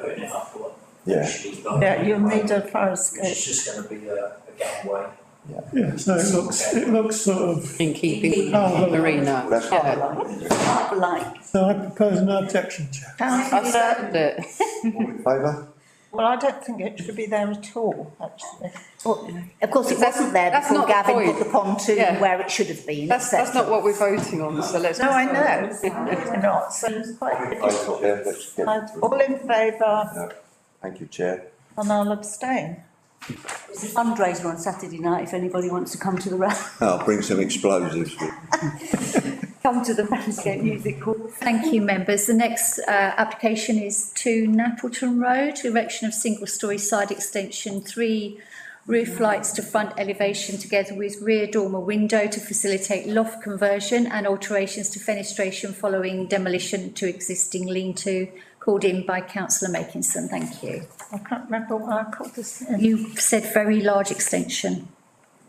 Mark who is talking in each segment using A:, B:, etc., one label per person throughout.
A: putting it up or.
B: Yeah,
A: She's done.
C: Yeah, you'll need a fire escape.
A: It's just gonna be a, a gangway.
D: Yeah, so it looks, it looks sort of,
E: in keeping with
D: Oh, the-
E: Marina.
B: that's
E: Yeah.
C: Like,
D: so I propose no objection, Chair.
C: how-
E: I second it.
B: all in favour?
C: well, I don't think it should be there at all, actually.
F: Of course, it
E: That's-
F: wasn't there
E: that's
F: before
E: not the
F: Gavin put
E: point.
F: the pontoon
E: Yeah.
F: where it should have been.
E: That's, that's not what we're voting on, so let's.
C: No, I know, we're not, so it's quite
B: All in favour,
C: difficult.
B: Chair, let's get it through.
C: All in favour,
B: No, Thank you, Chair.
C: and I'll abstain.
G: It's a fundraiser on Saturday night if anybody wants to come to the ra-
B: I'll bring some explosives with.
G: come to the Ramsgate Music Hall.
H: Thank you, members. The next uh, application is to Napleton Road, erection of single-storey side extension, three roof lights to front elevation together with rear dormer window to facilitate loft conversion and alterations to fenestration following demolition to existing lean-to called in by councillor Makinson. Thank you.
C: I can't remember why I called this in.
H: You said very large extension.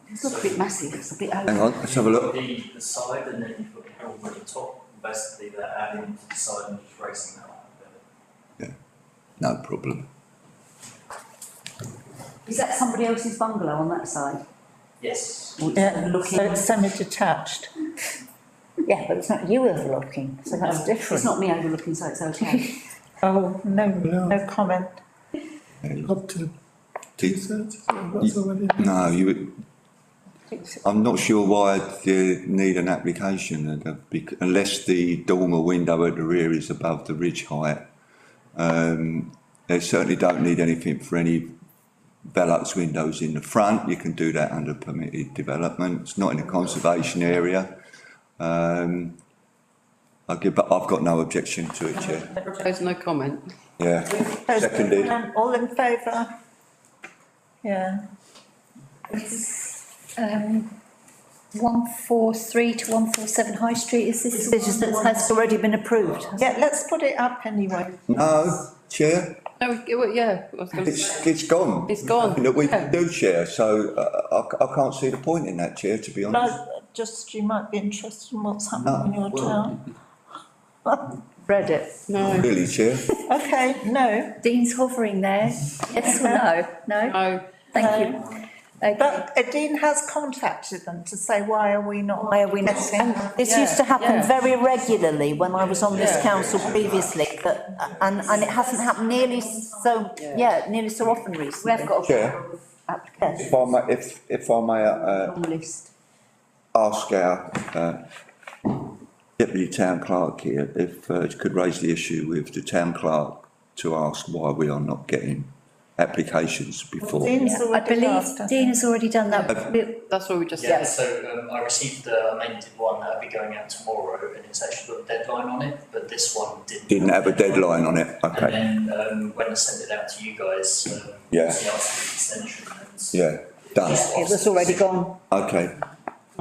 G: It's a bit massive, it's a bit over.
B: Hang on, let's have a look.
A: The, the side and then you put the helm on the top, basically they're adding to the side and just raising that up a bit.
B: No problem.
G: Is that somebody else's bungalow on that side?
A: Yes.
G: Or it's
C: Yeah, so
G: looking,
C: it's semi-detached.
F: Yeah, but it's not you overlooking, so that's
G: it's
F: different.
G: not me overlooking, so it's okay.
C: Oh, no, no comment.
D: Up to two
B: Do-
D: thirds, is that- that's already.
B: No, you, I'm not sure why I'd uh, need an application and, uh, bec- unless the dormer window at the rear is above the ridge height. Um, they certainly don't need anything for any Velux windows in the front. You can do that under permitted development. It's not in a conservation area. Um, I give, but I've got no objection to it, Chair.
E: There's no comment.
B: Yeah, seconded.
C: Um, All in favour? Yeah,
H: Um, 143 to 147 High Street, is this? the
F: This is,
H: one
F: that has already been approved.
C: yeah, let's put it up anyway.
B: No, Chair,
E: No, it- well, yeah, I was gonna say,
B: it's, it's gone.
E: it's gone.
B: that we
E: Yeah.
B: can do, Chair, so uh, I, I can't see the point in that, Chair, to be honest.
C: No, just, you might be interested in what's happening in your town.
F: Read it.
E: No,
B: Really, Chair,
C: Okay, no,
H: Dean's hovering there. Yes or no? No?
E: no,
H: Thank you. Okay.
C: but Dean has contacted them to say, why are we not?
F: Why are we not? And this used to happen
E: yeah.
F: very regularly when I was on this
E: Yeah.
F: council previously, that, and, and it hasn't happened nearly so, yeah, nearly so often
G: We
F: recently.
G: have got a
B: Chair,
G: application
B: if I may, if, if I may, uh,
G: on list.
B: ask our, uh, deputy town clerk here, if, uh, could raise the issue with the town clerk to ask why we are not getting applications before.
C: Dean's
H: I
C: already asked.
H: believe Dean has already done that. We-
E: that's what we just
A: Yeah,
E: said.
A: so um, I received the amended one that'll be going out tomorrow and it's actually got a deadline on it, but this one didn't.
B: Didn't have a deadline on it, okay,
A: And then um, when I sent it out to you guys, um,
B: Yeah.
A: it's the article extension and.
B: yeah, done,
F: It was already gone.
B: okay,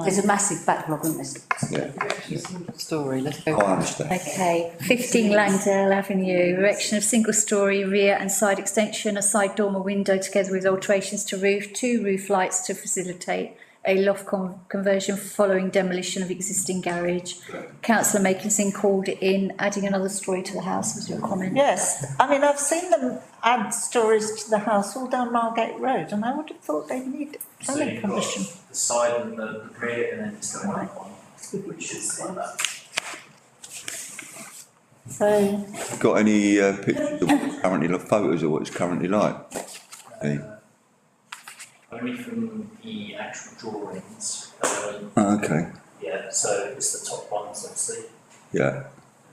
G: There's a massive backlog, isn't there?
B: yeah,
E: Story, let's
B: I
E: go.
B: understand.
H: Okay, fifteen Langdale Avenue, erection of single-story rear and side extension, a side dormer window together with alterations to roof, two roof lights to facilitate a loft con- conversion following demolition of existing garage. Councillor Makinson called it in, adding another story to the house was your comment.
C: Yes, I mean, I've seen them add stories to the house all down Margate Road, and I would have thought they'd need
A: So
C: planning
A: you've got
C: permission.
A: the side and the the rear and then it's going up one, which is like that.
C: So,
B: Got any, uh, pictures of what's currently, like, photos of what it's currently like? Hey.
A: Only from the actual drawings, um,
B: Ah, Okay,
A: yeah, so it's the top ones obviously, and
B: yeah,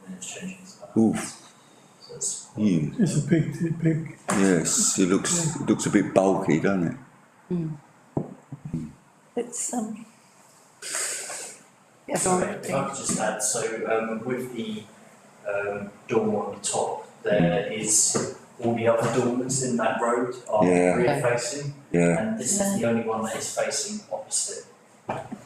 A: then it's changing to that.
B: oof,
A: So it's,
B: you.
D: It's a big, big
B: Yes, it looks, it looks a bit bulky, doesn't it?
C: it's, um,
E: Yes,
A: Sorry, if I could just add, so, um, with the, um, dormer on the top, there is, all the other dormers in that road are
B: Yeah.
A: rear facing,
B: Yeah.
A: and this is the only one that is facing opposite.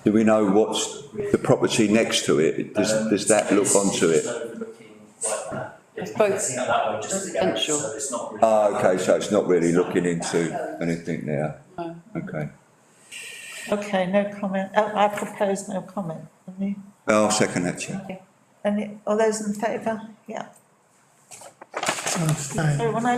B: Do we know what's
A: the rear.
B: the property next to it? Does,
A: Um,
B: does that look
A: it's-
B: onto
A: it's
B: it?
A: overlooking like that.
E: It's
A: It's
E: both
A: facing out that way just to go,
E: residential.
A: so it's not really.
B: Ah, okay, so it's not really looking into anything there?
E: No.
B: Okay.
C: okay, no comment, oh, I propose no comment. Any,
B: I'll second that, Chair.
C: any, all those in favour? Yeah,
D: abstain.
C: so when I